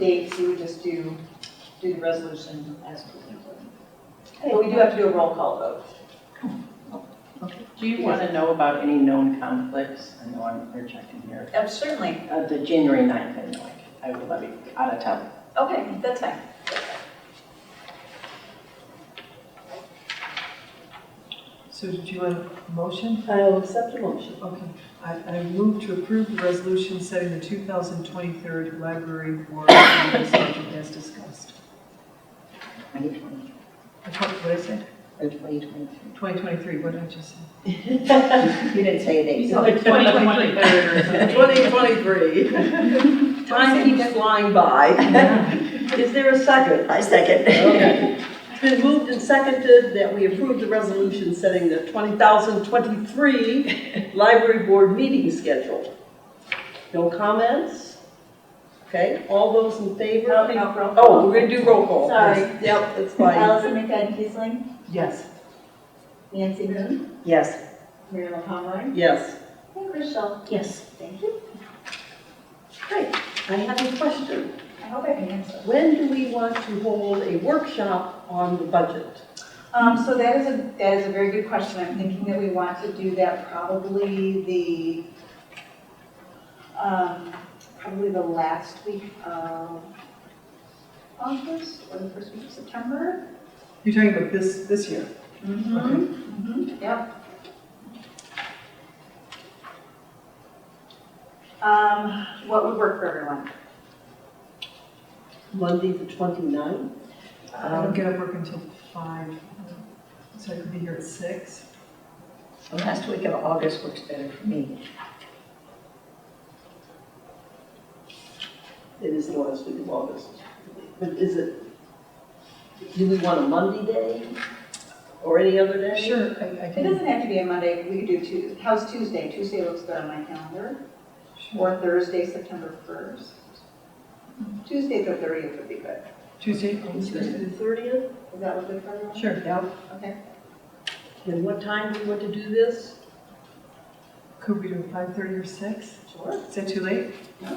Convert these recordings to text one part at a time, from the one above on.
dates, you would just do, do the resolution as presented. But we do have to do a roll call vote. Do you want to know about any known conflicts? I know I'm interjecting here. Um, Certainly, Uh, The January 9th, I know I I will be out of town. okay, that's fine. So did you want a motion? I'll accept the motion. Okay, I, I move to approve the resolution setting the 2023 library board meeting schedule as discussed. I told- What did I say? Oh, or 2023. 2023, what did I just say? You didn't say a date. No, 2023. 2023. Time keeps flying by. Is there a second? I second. Okay. It's been moved and seconded that we approve the resolution setting the 2023 library board meeting schedule. No comments? Okay, all those in favor? No, no, roll call. Oh, we're gonna do roll call. Sorry. Yep, that's fine. Allison McFadden Kiesling, Yes. Nancy Moon, Yes. Mary Conroy, Yes. and Chris Schell. Yes. Thank you. Great. I have a question. I hope I can answer. When do we want to hold a workshop on the budget? Um, so that is a, that is a very good question. I'm thinking that we want to do that probably the, um, probably the last week of August or the first week of September. You're talking about this, this year? Mm-hmm. Mm-hmm, yep. Um, what would work for everyone? Monday, the 29th? I don't get up work until 5, so I could be here at 6. The last week of August works better for me. It is the last week of August. But is it, do we want a Monday day or any other day? Sure, I I It can, doesn't have to be a Monday, we could do Tuesday. How's Tuesday? Tuesday looks good on my calendar. sure. Or Thursday, September 1st. Tuesday, the 30th would be good. Tuesday, oh, Tuesday, Tuesday. the 30th? Is that what good for everyone? Sure. Okay. And what time do we want to do this? Could we do 5:30 or 6? Sure. Is that too late? That's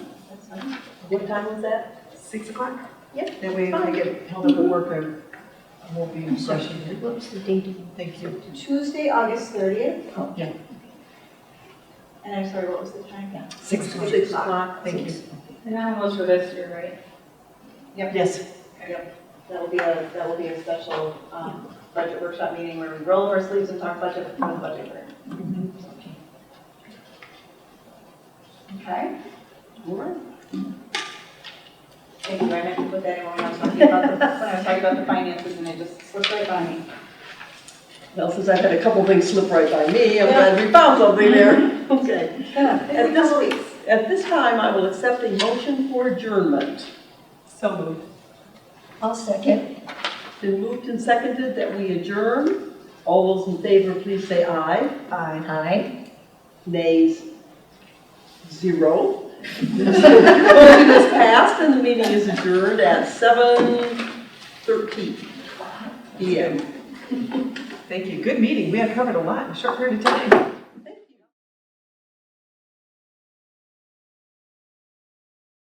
fine. What time was that? 6 o'clock? Yeah, That way if I get held up at work, I I won't be in session here. What's the date of Thank you. Tuesday, August 30th. Oh, yeah. And I'm sorry, what was the time? Six o'clock. Six o'clock. Thank you. And I was for this year, right? Yes. That'll be a, that will be a special um, budget workshop meeting where we roll up our sleeves and talk budget with the budget group. Okay? All right. Thank you, I meant to put that in when I was talking about the, when I was talking about the finances and it just slipped right by me. Well, since I've had a couple things slip right by me, I'm glad we found something there. Okay. And this- this week. At this time, I will accept a motion for adjournment. So moved. I'll second. Been moved and seconded that we adjourn. All those in favor, please say aye. Aye. Aye. Nays, zero. Motion is passed and the meeting is adjourned at 7:13 PM. Thank you. Good meeting. We had covered a lot in a short period of time.